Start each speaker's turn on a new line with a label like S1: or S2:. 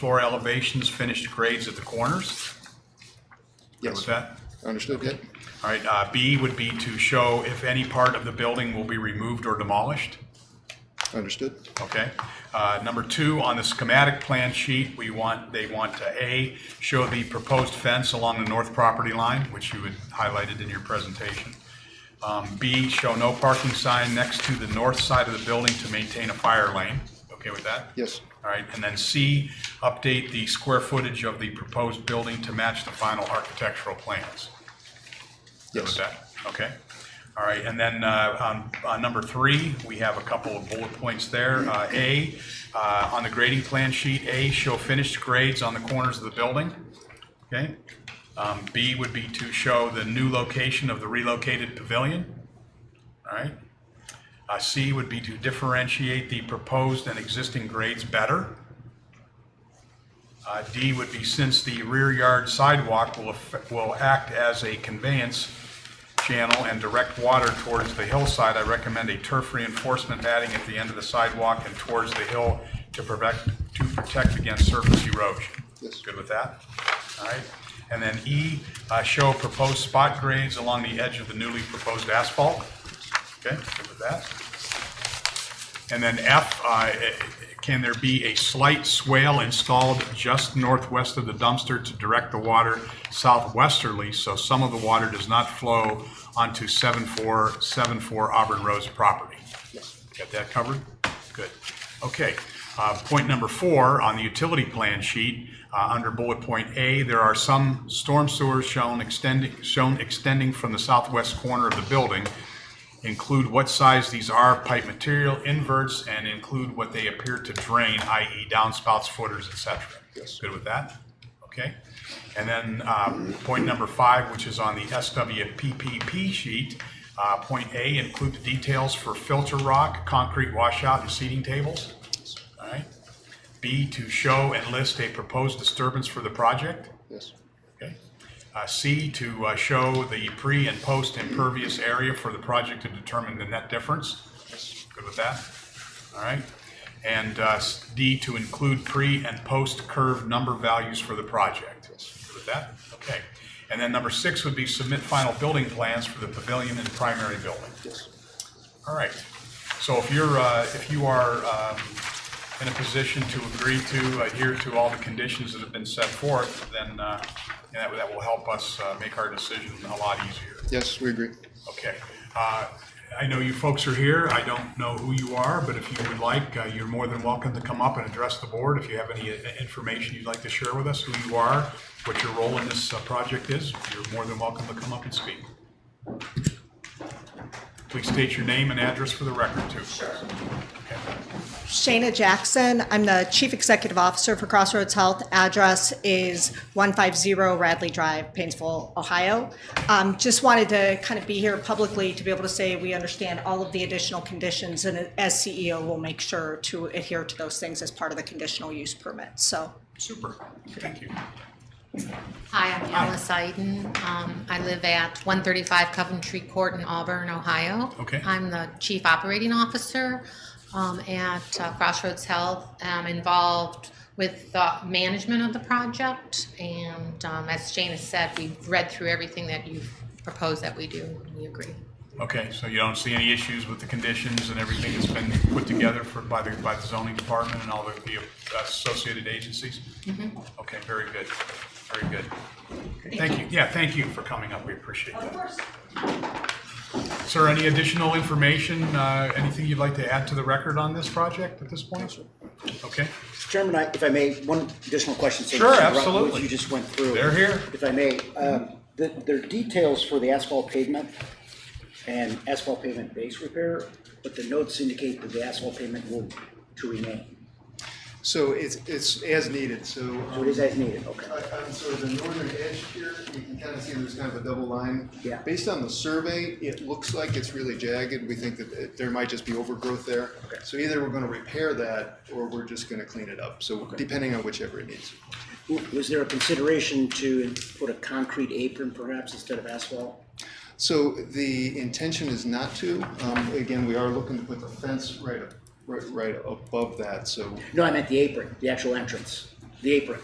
S1: floor elevations, finished grades at the corners. Good
S2: Yes,
S1: with that?
S2: understood, yeah.
S1: All right, uh, B would be to show if any part of the building will be removed or demolished.
S2: Understood,
S1: Okay. Uh, Number two, on the schematic plan sheet, we want, they want to, A, show the proposed fence along the north property line, which you had highlighted in your presentation. Um, B, show no parking sign next to the north side of the building to maintain a fire lane. Okay with that?
S2: yes,
S1: All right, and then C, update the square footage of the proposed building to match the final architectural plans. Good
S2: yes,
S1: with that? Okay. All right, and then uh, on, on number three, we have a couple of bullet points there. Uh, A, uh, on the grading plan sheet, A, show finished grades on the corners of the building. Okay? Um, B would be to show the new location of the relocated pavilion. All right? Uh, C would be to differentiate the proposed and existing grades better. Uh, D would be since the rear yard sidewalk will, affect- will act as a conveyance channel and direct water towards the hillside, I recommend a turf reinforcement padding at the end of the sidewalk and towards the hill to protect, to protect against surface erosion.
S2: Yes.
S1: Good with that? All right. And then E, uh, show proposed spot grades along the edge of the newly proposed asphalt. Okay, good with that? And then F, uh, can there be a slight swale installed just northwest of the dumpster to direct the water southwesterly so some of the water does not flow onto 7474 Auburn Road's property?
S2: yes,
S1: Got that covered? Good. Okay. Uh, Point number four, on the utility plan sheet, uh, under bullet point A, there are some storm sewers shown extending, shown extending from the southwest corner of the building. Include what size these are, pipe material, inverts, and include what they appear to drain, i.e. downspouts, footers, et cetera.
S2: Yes.
S1: Good with that? Okay. And then uh, point number five, which is on the SWPPP sheet, uh, point A, include the details for filter rock, concrete washout, and seating tables. All right. B, to show and list a proposed disturbance for the project.
S2: yes,
S1: Okay. Uh, C, to uh, show the pre and post impervious area for the project to determine the net difference. Good with that? All right. And uh, s- D, to include pre and post curve number values for the project. Good with that? Okay. And then number six would be submit final building plans for the pavilion and primary building.
S2: yes.
S1: All right. So if you're, uh, if you are um, in a position to agree to adhere to all the conditions that have been set forth, then uh, that that will help us uh, make our decision a lot easier.
S2: Yes, we agree.
S1: Okay. Uh, I know you folks are here. I don't know who you are, but if you would like, uh, you're more than welcome to come up and address the board. If you have any uh, information you'd like to share with us, who you are, what your role in this uh, project is, you're more than welcome to come up and speak. Please state your name and address for the record, too. Okay.
S3: Shayna Jackson. I'm the Chief Executive Officer for Crossroads Health. Address is 150 Radley Drive, Painesville, Ohio. Um, Just wanted to kind of be here publicly to be able to say we understand all of the additional conditions, and as CEO, we'll make sure to adhere to those things as part of the conditional use permit. So
S1: Super. Thank you.
S4: Hi, I'm Alice Iden. Um, I live at 135 Coventry Court in Auburn, Ohio.
S1: Okay.
S4: I'm the Chief Operating Officer um, at uh, Crossroads Health. I'm involved with the management of the project, and um, as Jane has said, we've read through everything that you've proposed that we do, and we agree.
S1: Okay, so you don't see any issues with the conditions and everything that's been put together for, by the, by the zoning department and all the, the associated agencies? Okay, very good, very good. Mm-hmm. Thank you, yeah, thank you for coming up, we appreciate that. Of course. Sir, any additional information, uh, anything you'd like to add to the record on this project at this point? Okay,
S5: Chairman, I- if I may, one additional question. since
S1: Sure,
S5: you brought-
S1: absolutely.
S5: What you just went through.
S1: They're here.
S5: If I may, um, the, there are details for the asphalt pavement and asphalt pavement base repair, but the notes indicate that the asphalt pavement will to remain.
S6: So it's, it's as needed, so. uh,
S5: So it is as needed, okay.
S6: On sort of the northern edge here, you can kind of see there's kind of a double line.
S5: Yeah.
S6: Based on the survey, it looks like it's really jagged. We think that it- there might just be overgrowth there.
S5: Okay.
S6: So either we're gonna repair that, or we're just gonna clean it up, so depending on whichever it needs.
S5: W- Was there a consideration to put a concrete apron perhaps instead of asphalt?
S6: So the intention is not to, um, again, we are looking to put the fence right, up- right, right above that, so
S5: No, I meant the apron, the actual entrance. the apron.